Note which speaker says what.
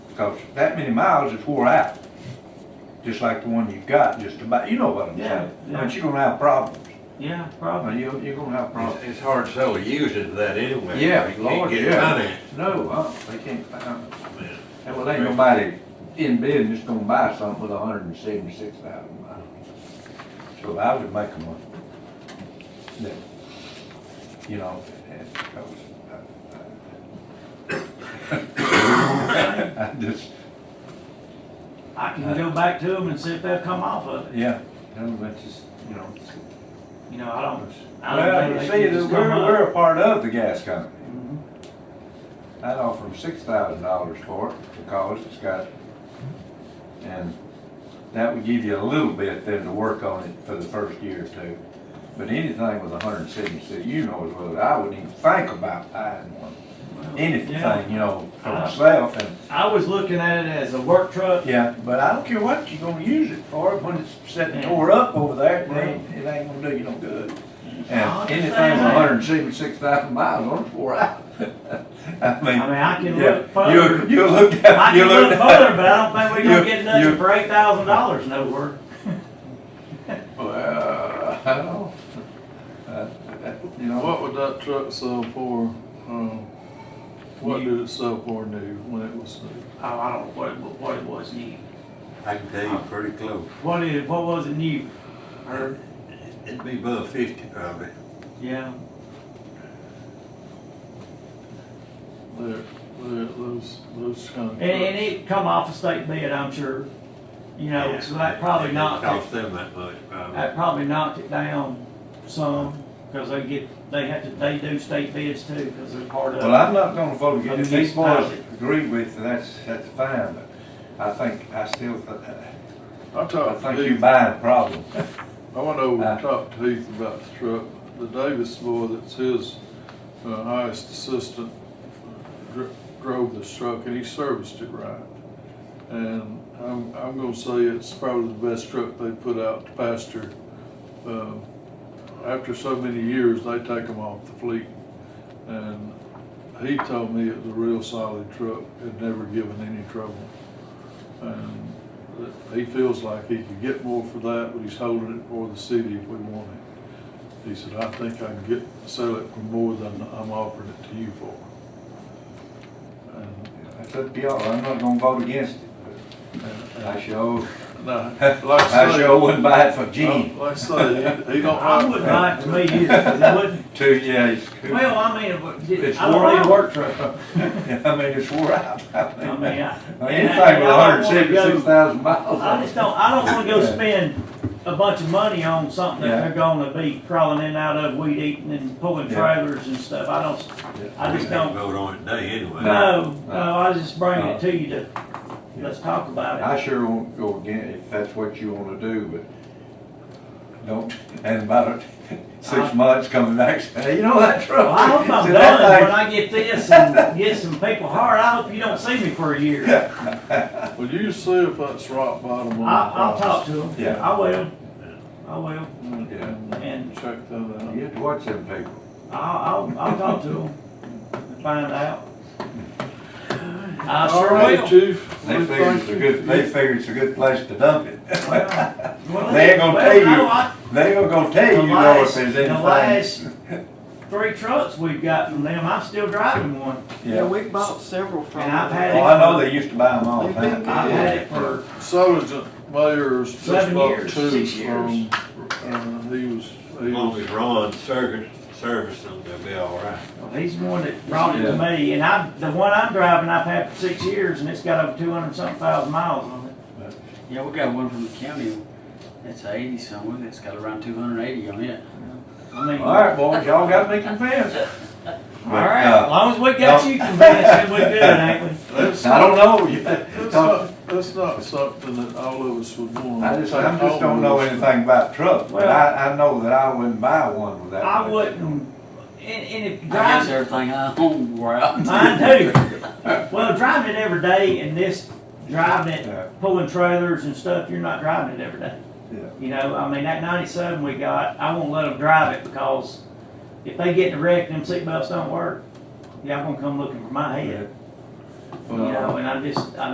Speaker 1: Cause that many miles is wore out, just like the one you've got, just about, you know what I'm
Speaker 2: Yeah,
Speaker 1: saying?
Speaker 2: yeah.
Speaker 1: I mean, you're gonna have problems,
Speaker 2: Yeah,
Speaker 1: I
Speaker 2: probably.
Speaker 1: mean, you're, you're gonna have problems.
Speaker 3: It's it's hard to sell a used it to that anyway.
Speaker 1: Yeah,
Speaker 3: You can't
Speaker 1: Lord,
Speaker 3: get
Speaker 1: yeah.
Speaker 3: money.
Speaker 1: No, uh, they can't, uh,
Speaker 3: Man,
Speaker 1: and well, ain't nobody in business gonna buy something with hundred and seventy-six thousand miles. So I would make them a, that, you know, and, because uh, I I just,
Speaker 2: I can go back to them and see if they'll come off of it.
Speaker 1: yeah, no, that's just, you know.
Speaker 2: You know, I don't, I
Speaker 1: Well,
Speaker 2: don't
Speaker 1: you
Speaker 2: think
Speaker 1: see,
Speaker 2: they can
Speaker 1: we're,
Speaker 2: just come up.
Speaker 1: we're a part of the gas company.
Speaker 2: Mhm.
Speaker 1: I'd offer them six thousand dollars for it because it's got, and that would give you a little bit then to work on it for the first year or two. But anything with a hundred and seventy-six, you know as well as I wouldn't even think about buying one,
Speaker 2: Yeah.
Speaker 1: anything, you know, for
Speaker 2: Uh-huh.
Speaker 1: myself and,
Speaker 2: I was looking at it as a work truck.
Speaker 1: yeah, but I don't care what you're gonna use it for, when it's sitting tore up over there, it ain't, it ain't gonna do you no good.
Speaker 2: I
Speaker 1: And anything with
Speaker 2: understand that.
Speaker 1: hundred and seventy-six thousand miles on it, wore out. I
Speaker 2: I
Speaker 1: mean,
Speaker 2: mean, I can
Speaker 1: yeah,
Speaker 2: look further.
Speaker 1: you you look
Speaker 2: I
Speaker 1: at you
Speaker 2: can
Speaker 1: look
Speaker 2: look further, but I don't think we're
Speaker 1: You-
Speaker 2: gonna get
Speaker 1: you-
Speaker 2: nothing for eight thousand dollars nowhere.
Speaker 1: Well, I don't know. Uh, You know,
Speaker 4: What would that truck sell for, um, what did it sell for new when it was new?
Speaker 2: Oh, I don't know what, what- what it was new.
Speaker 3: I can tell you pretty close.
Speaker 2: What is, what was it new? Or,
Speaker 3: It'd be above fifty probably.
Speaker 2: yeah,
Speaker 4: There, there, those, those kind of
Speaker 2: and, and
Speaker 4: trucks.
Speaker 2: it come off a state bid, I'm sure. You know, so that probably Uh,
Speaker 3: It
Speaker 2: knocked it,
Speaker 3: Cost them that much probably.
Speaker 2: that probably knocked it down some, cause they get, they have to, they do state bids too, cause they're part of.
Speaker 1: well, I'm not gonna vote
Speaker 2: I
Speaker 1: against,
Speaker 2: mean,
Speaker 1: if these
Speaker 2: it's
Speaker 1: boys
Speaker 2: positive.
Speaker 1: agree with, you, that's, that's fine, but I think, I still, th-
Speaker 4: I
Speaker 1: I
Speaker 4: talked to
Speaker 1: think you
Speaker 4: Heath,
Speaker 1: buying a problem.
Speaker 4: I went over
Speaker 1: Uh.
Speaker 4: and talked to Heath about the truck, the Davis boy that's his, uh, highest assistant dr- drove this truck and he serviced it right. And I'm, I'm gonna say it's probably the best truck they put out to pasture. Um, After so many years, they take them off the fleet. And he told me it was a real solid truck, had never given any trouble. And that he feels like he could get more for that, but he's holding it for the city if we want it. He said, I think I can get, sell it for more than I'm offering it to you for. And
Speaker 1: That's up to y'all, I'm not gonna vote against it. but I sure,
Speaker 4: No, like
Speaker 1: I
Speaker 4: I say,
Speaker 1: sure wouldn't buy it for
Speaker 4: um,
Speaker 1: Gene.
Speaker 4: like I say, he, he don't
Speaker 2: I
Speaker 4: like
Speaker 2: wouldn't buy it to me either, 'cause it wouldn't,
Speaker 1: Oh, Two, yeah, it's,
Speaker 2: well, I mean, it would-
Speaker 1: it's
Speaker 2: I don't
Speaker 1: wore
Speaker 2: really
Speaker 1: out.
Speaker 2: work truck.
Speaker 1: I mean, it's wore out.
Speaker 2: I mean, I.
Speaker 1: Anything with
Speaker 2: and I
Speaker 1: hundred
Speaker 2: don't wanna
Speaker 1: seventy-six
Speaker 2: go-
Speaker 1: thousand miles
Speaker 2: I
Speaker 1: on
Speaker 2: just
Speaker 1: it.
Speaker 2: don't, I don't wanna go spend a bunch of money on something
Speaker 1: Yeah.
Speaker 2: that they're gonna be crawling in and out of, weed eating and pulling
Speaker 1: Yeah.
Speaker 2: trailers and stuff, I don't, I
Speaker 3: We
Speaker 2: just
Speaker 3: can't
Speaker 2: don't,
Speaker 3: vote on it today anyway.
Speaker 2: no,
Speaker 1: No.
Speaker 2: no, I was just bringing
Speaker 1: No.
Speaker 2: it to you to, let's talk about it.
Speaker 1: I sure won't go again if that's what you wanna do, but don't, and about six
Speaker 2: Uh-huh.
Speaker 1: months coming back, say, "Hey, you know that truck?
Speaker 2: Well, I hope I'm
Speaker 1: See, that
Speaker 2: done when
Speaker 1: thing-
Speaker 2: I get this and get some people hard, I hope you don't see me for a year.
Speaker 4: that. Well, you see if that's rock bottom on the
Speaker 2: I, I'll talk
Speaker 4: price.
Speaker 2: to them.
Speaker 1: Yeah.
Speaker 2: I will, I will,
Speaker 4: And-
Speaker 2: And-
Speaker 4: And check that out.
Speaker 1: You have to watch them people.
Speaker 2: I'll, I'll, I'll talk to them and find out. I
Speaker 4: All
Speaker 2: sure
Speaker 4: right,
Speaker 2: will.
Speaker 4: Chief.
Speaker 1: They
Speaker 4: We
Speaker 1: figure it's
Speaker 4: thank
Speaker 1: a
Speaker 4: you.
Speaker 1: good, they figure it's a good place to dump it.
Speaker 2: Well,
Speaker 1: They ain't gonna
Speaker 2: well,
Speaker 1: tell you,
Speaker 2: no, I-
Speaker 1: they ain't gonna tell
Speaker 2: The
Speaker 1: you though if
Speaker 2: last,
Speaker 1: there's
Speaker 2: the
Speaker 1: anything.
Speaker 2: last three trucks we've got from them, I'm still driving one.
Speaker 5: Yeah,
Speaker 1: Yeah,
Speaker 5: we bought several from
Speaker 2: And I've
Speaker 5: them.
Speaker 2: had
Speaker 1: well, I know they used to buy them all the
Speaker 5: They've been
Speaker 1: time.
Speaker 5: good.
Speaker 2: I've had it for,
Speaker 4: Sergeant Mayor's just
Speaker 2: Seven
Speaker 4: bought
Speaker 2: years,
Speaker 4: two
Speaker 2: six years.
Speaker 4: from, uh, he was, he
Speaker 3: As long
Speaker 4: was,
Speaker 3: as Ron service, service them, they'll be all right.
Speaker 2: well, he's the one that brought it to me, and I, the one I'm driving, I've had for six years, and it's got over two hundred something thousand miles on it.
Speaker 6: Yeah, we got one from the county that's eighty somewhere, that's got around two hundred eighty on it.
Speaker 2: I mean,
Speaker 1: All right, boys, y'all got me convinced.
Speaker 2: all right, as long as we got you convinced, then we good, ain't we?
Speaker 4: that's
Speaker 1: I don't
Speaker 4: not,
Speaker 1: know. You-
Speaker 4: that's not, that's not something that all of us would want.
Speaker 1: I just, I just don't know anything about trucks, but I, I know that I wouldn't buy one without.
Speaker 2: I wouldn't, and, and if
Speaker 6: I guess
Speaker 2: driving,
Speaker 6: everything I own wore out.
Speaker 2: mine too. Well, driving it every day and this, driving
Speaker 1: Yeah.
Speaker 2: it, pulling trailers and stuff, you're not driving it every day.
Speaker 1: Yeah.
Speaker 2: You know, I mean, that ninety-seven we got, I won't let them drive it because if they get in a wreck, them seatbelts don't work. Y'all gonna come looking for my head, you know, and I just, I